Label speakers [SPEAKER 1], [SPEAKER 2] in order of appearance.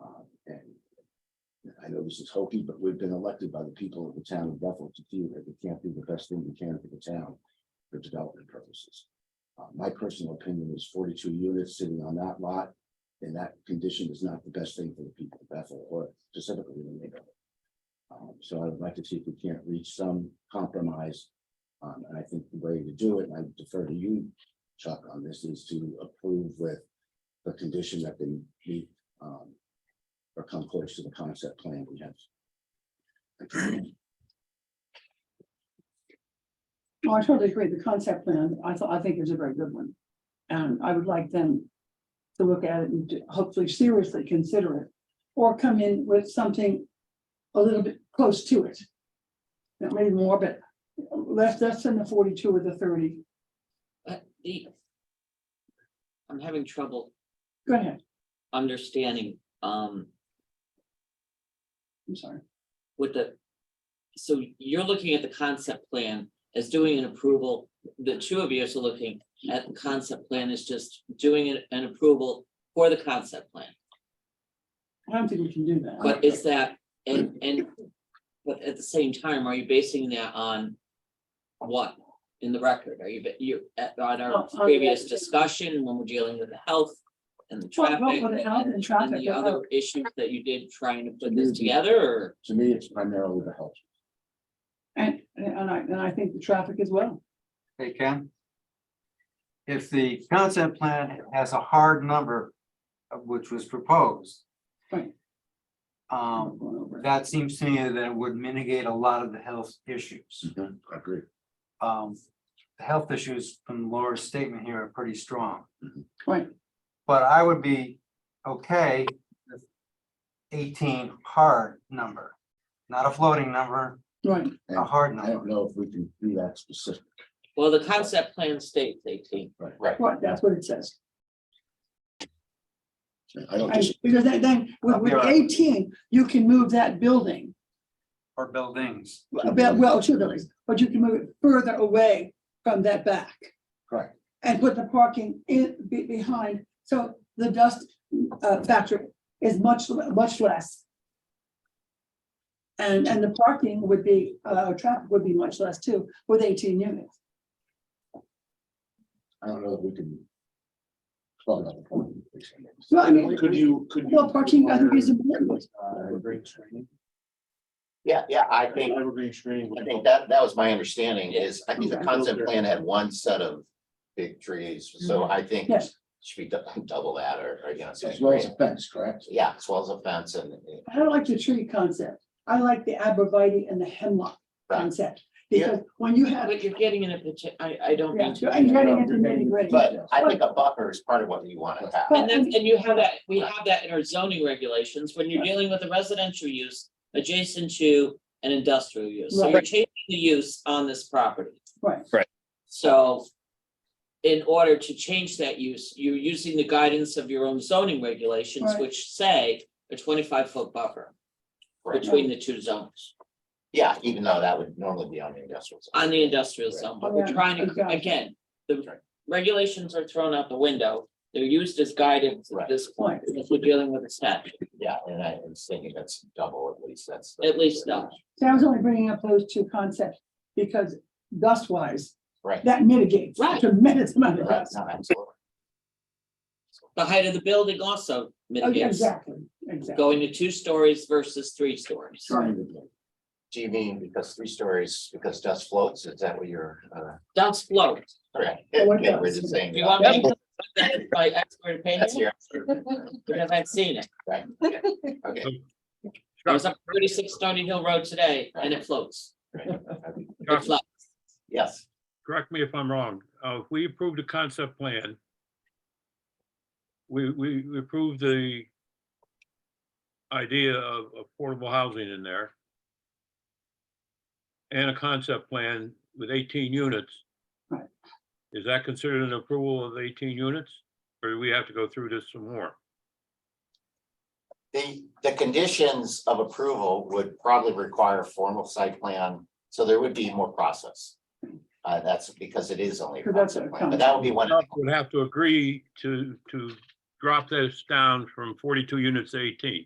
[SPEAKER 1] Uh, know this is hokey, but we've been elected by the people of the town of Bethel to feel that we can't do the best thing we can for the town for development purposes. Uh, my personal opinion is forty-two units sitting on that lot in that condition is not the best thing for the people of Bethel or specifically the neighborhood. Um, so I would like to see if we can't reach some compromise. Um, and I think the way to do it, and I defer to you, Chuck, on this, is to approve with the condition that they meet, um, or come close to the concept plan we have.
[SPEAKER 2] Oh, I totally agree. The concept plan, I thought, I think is a very good one. And I would like them to look at it and to hopefully seriously consider it. Or come in with something a little bit close to it. Not really more, but less, less than the forty-two or the thirty.
[SPEAKER 3] But the. I'm having trouble
[SPEAKER 2] Go ahead,
[SPEAKER 3] understanding, um,
[SPEAKER 2] I'm sorry.
[SPEAKER 3] with the. So you're looking at the concept plan as doing an approval, the two of you are still looking at the concept plan is just doing an, an approval for the concept plan.
[SPEAKER 2] I don't think we can do that.
[SPEAKER 3] But is that, and, and, but at the same time, are you basing that on what in the record? Are you, you, at, on
[SPEAKER 2] Oh,
[SPEAKER 3] our
[SPEAKER 2] on the
[SPEAKER 3] previous
[SPEAKER 2] record.
[SPEAKER 3] discussion, when we're dealing with the health and the
[SPEAKER 2] Well,
[SPEAKER 3] traffic?
[SPEAKER 2] well, for the health and
[SPEAKER 3] And
[SPEAKER 2] traffic,
[SPEAKER 3] the
[SPEAKER 2] yeah,
[SPEAKER 3] other issues that you did trying to put this together, or,
[SPEAKER 1] To me, it's primarily the health.
[SPEAKER 2] And, and I, and I think the traffic as well.
[SPEAKER 4] Hey, Ken? If the concept plan has a hard number, uh, which was proposed.
[SPEAKER 2] Right.
[SPEAKER 4] Um,
[SPEAKER 2] Going over it.
[SPEAKER 4] that seems to me that it would mitigate a lot of the health issues.
[SPEAKER 5] Mm-hmm,
[SPEAKER 1] I agree.
[SPEAKER 4] Um, the health issues from Laura's statement here are pretty strong.
[SPEAKER 2] Right.
[SPEAKER 4] But I would be okay with eighteen hard number, not a floating number,
[SPEAKER 2] Right,
[SPEAKER 4] a hard
[SPEAKER 1] I don't
[SPEAKER 4] number.
[SPEAKER 1] know if we can do that specific.
[SPEAKER 3] well, the concept plan states eighteen.
[SPEAKER 2] right, that's what it says.
[SPEAKER 1] I don't
[SPEAKER 2] And
[SPEAKER 1] just,
[SPEAKER 2] because then, then with with
[SPEAKER 4] Yeah.
[SPEAKER 2] eighteen, you can move that building
[SPEAKER 4] Or buildings.
[SPEAKER 2] About, well, two buildings, but you can move it further away from that back.
[SPEAKER 1] Correct.
[SPEAKER 2] And put the parking in, be, behind, so the dust, uh, factor is much, le- much less. And, and the parking would be, uh, traffic would be much less too, with eighteen units.
[SPEAKER 1] I don't know if we can. Well, not the point.
[SPEAKER 2] Well, I mean,
[SPEAKER 5] Could you, could you?
[SPEAKER 2] well, parking, I think is important,
[SPEAKER 5] Uh, great training.
[SPEAKER 6] Yeah, yeah, I think,
[SPEAKER 5] Evergreen screening. would
[SPEAKER 6] I
[SPEAKER 5] help.
[SPEAKER 6] think that, that was my understanding
[SPEAKER 3] Yeah.
[SPEAKER 6] is, I think the concept plan had one set of big trees, so I think it
[SPEAKER 2] yes,
[SPEAKER 6] should be dou- double that or, or, you know,
[SPEAKER 1] As well as a
[SPEAKER 6] something.
[SPEAKER 1] fence, correct?
[SPEAKER 6] Yeah, as well as a fence and.
[SPEAKER 2] I don't like the tree concept, I like the abreviate and the hemlock concept.
[SPEAKER 6] Yeah.
[SPEAKER 2] Because when you have,
[SPEAKER 3] But you're getting in a, pati- I, I don't
[SPEAKER 2] yeah,
[SPEAKER 3] mean
[SPEAKER 2] so
[SPEAKER 3] to.
[SPEAKER 2] I'm getting into nitty gritty.
[SPEAKER 6] But I think a buffer is part of what you want to have.
[SPEAKER 3] And then, and you have that, we have that in our zoning regulations, when you're dealing with a residential use adjacent to an industrial use, so you're
[SPEAKER 2] Right.
[SPEAKER 3] changing the use on this property.
[SPEAKER 2] Right.
[SPEAKER 7] Right.
[SPEAKER 3] So in order to change that use, you're using the guidance of your own zoning regulations,
[SPEAKER 2] Right.
[SPEAKER 3] which say a twenty-five foot buffer
[SPEAKER 6] Right.
[SPEAKER 3] between the two zones,
[SPEAKER 6] Yeah, even though that would normally be on the industrial. side.
[SPEAKER 3] on the industrial zone, but
[SPEAKER 2] Oh, Yeah,
[SPEAKER 3] we're trying to,
[SPEAKER 2] exactly.
[SPEAKER 3] again, the regulations are thrown out the window, they're used as guidance at
[SPEAKER 6] Right.
[SPEAKER 3] this point,
[SPEAKER 2] Right.
[SPEAKER 3] if we're dealing with a statute.
[SPEAKER 6] Yeah, and I was thinking that's double at least, that's. the-
[SPEAKER 3] At least double.
[SPEAKER 2] See, I was only bringing up those two concepts because dust wise,
[SPEAKER 6] Right.
[SPEAKER 2] that mitigates a
[SPEAKER 3] Right.
[SPEAKER 2] tremendous amount of
[SPEAKER 6] Right,
[SPEAKER 2] dust.
[SPEAKER 6] no, absolutely.
[SPEAKER 3] the height of the building also
[SPEAKER 2] Oh, yeah,
[SPEAKER 3] mitigates
[SPEAKER 2] Exactly, exactly.
[SPEAKER 3] going to two stories versus three stories.
[SPEAKER 1] Trying to.
[SPEAKER 6] Do you mean because three stories, because dust floats, is that what you're, uh?
[SPEAKER 3] Dust float.
[SPEAKER 6] Correct.
[SPEAKER 2] Oh, what
[SPEAKER 6] Yeah, we're
[SPEAKER 2] does?
[SPEAKER 6] just saying.
[SPEAKER 3] Do you want me to put that in my expert
[SPEAKER 6] That's
[SPEAKER 3] opinion?
[SPEAKER 6] your.
[SPEAKER 3] Because I've seen it.
[SPEAKER 6] Right, okay.
[SPEAKER 3] I was up thirty-six Stony Hill Road today and it floats.
[SPEAKER 6] okay.
[SPEAKER 3] It floats.
[SPEAKER 6] Yes,
[SPEAKER 8] correct me if I'm wrong, uh, if we approve the concept plan, we, we we approve the idea of affordable housing in there and a concept plan with eighteen units.
[SPEAKER 2] Right.
[SPEAKER 8] Is that considered an approval of eighteen units? Or do we have to go through this some more?
[SPEAKER 6] the, the conditions of approval would probably require formal site plan, so there would be more process. Uh, that's because it is only. a
[SPEAKER 2] Because that's a
[SPEAKER 6] concept plan, But that would be one,
[SPEAKER 8] Council Would have to agree to, to drop this down from forty-two units to eighteen.